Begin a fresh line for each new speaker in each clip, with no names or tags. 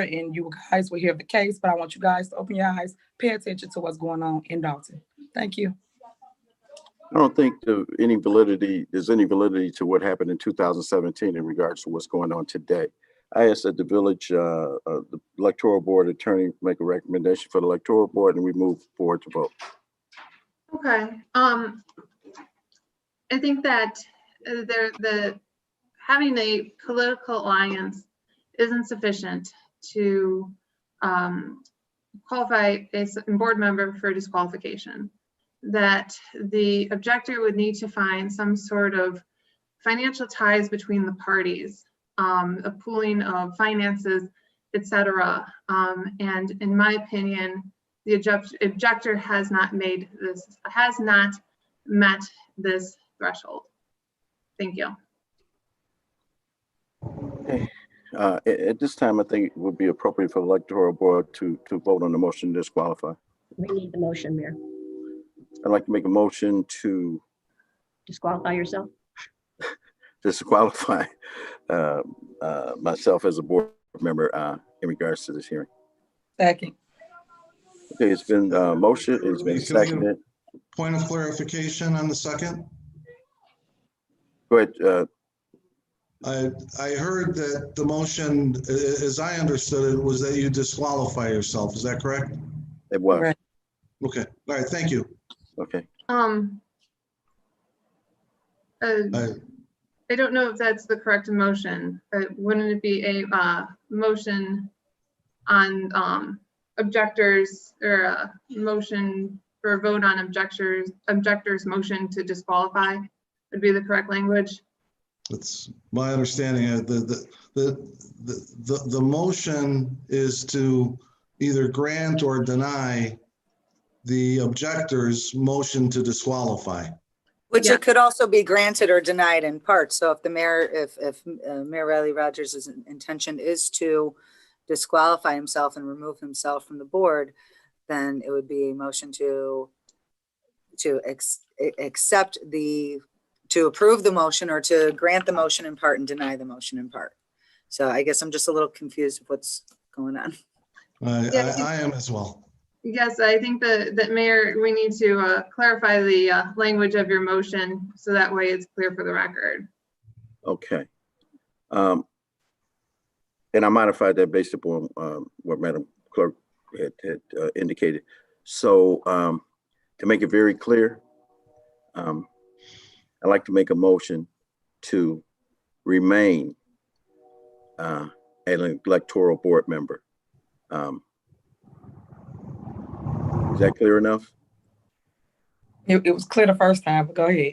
and you guys will hear the case, but I want you guys to open your eyes, pay attention to what's going on in Dalton. Thank you.
I don't think the, any validity, there's any validity to what happened in 2017 in regards to what's going on today. I asked that the village, uh, uh, the electoral board attorney make a recommendation for the electoral board and we move forward to vote.
Okay, um, I think that uh, there, the, having a political alliance isn't sufficient to, um, qualify a s- board member for disqualification. That the objector would need to find some sort of financial ties between the parties, um, a pooling of finances, et cetera. Um, and in my opinion, the object- objector has not made this, has not met this threshold. Thank you.
Uh, at, at this time, I think it would be appropriate for the electoral board to, to vote on the motion to disqualify.
We need the motion, Mayor.
I'd like to make a motion to
Disqualify yourself.
disqualify, uh, uh, myself as a board member, uh, in regards to this hearing.
Second,
Okay, it's been, uh, motion, it's been
Lisa, we have-
seconded.
Point of clarification on the second.
Go ahead, uh,
I, I heard that the motion, a- a- as I understood it, was that you disqualify yourself. Is that correct?
It was,
Right.
Okay, all right, thank you.
okay.
Um. uh,
I-
I don't know if that's the correct motion, but wouldn't it be a, uh, motion on, um, objectors or a motion for a vote on objectors, objectors motion to disqualify would be the correct language?
It's my understanding uh, the the, the, the, the, the motion is to either grant or deny the objector's motion to disqualify.
Which
Yeah.
it could also be granted or denied in part. So if the mayor, if, if uh, Mayor Riley Rogers' intention is to disqualify himself and remove himself from the board, then it would be a motion to, to ex- a- accept the, to approve the motion or to grant the motion in part and deny the motion in part. So I guess I'm just a little confused with what's going on.
I,
Yeah,
I, I am as well.
Yes, I think that, that Mayor, we need to uh, clarify the uh, language of your motion, so that way it's clear for the record.
Okay. Um, and I modified that based upon, um, what Madam Clerk had, had uh, indicated. So, um, to make it very clear, um, I'd like to make a motion to remain, uh, an electoral board member. Um, is that clear enough?
it, it was clear the first time, but go ahead.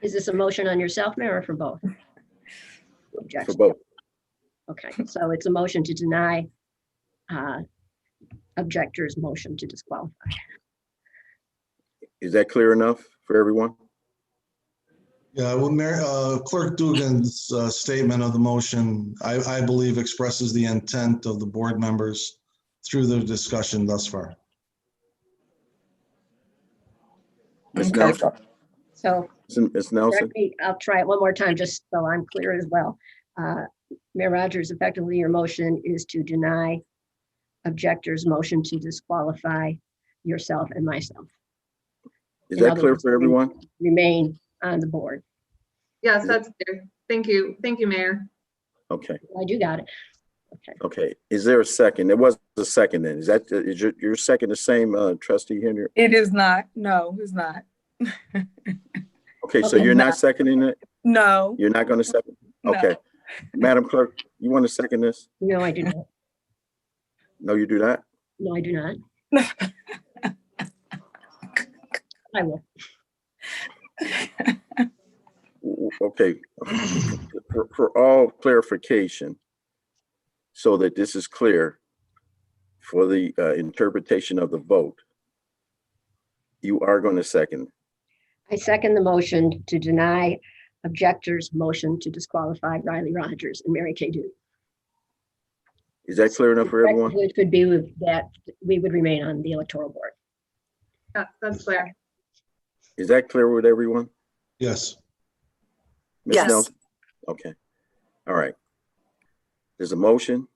Is this a motion on yourself, Mayor, or for both?
For
Objection.
both?
Okay, so it's a motion to deny uh, objector's motion to disqualify.
Is that clear enough for everyone?
Yeah, well, Mayor, uh, Clerk Dugan's, uh, statement of the motion, I, I believe expresses the intent of the board members through their discussion thus far.
Ms.
Okay.
Nelson,
So
Ms. Nelson?
correct me- I'll try it one more time, just so I'm clear as well. Uh, Mayor Rogers, effectively, your motion is to deny objector's motion to disqualify yourself and myself,
Is
In
that
other
clear
words,
for
in-
everyone?
remain on the board.
Yes, that's clear. Thank you. Thank you, Mayor.
Okay,
I do got it. Okay.
okay. Is there a second? There was a second then. Is that, is your, your second the same, uh, trustee Henry?
It is not, no, it's not.
Okay, so
Okay.
you're not seconding it?
No,
You're not gonna second?
No.
Okay. Madam Clerk, you want to second this?
No, I do not.
No, you do not?
No, I do not. I will.
W- w- Okay. For, for all clarification, so that this is clear for the, uh, interpretation of the vote, you are gonna second.
I second the motion to deny objectors' motion to disqualify Riley Rogers and Mary Kay Duty.
Is that clear enough for everyone?
Which would be with that, we would remain on the electoral board.
Yeah, That's clear.
Is that clear with everyone?
Yes,
Ms.
Yes.
Nelson? Okay, all right. There's a motion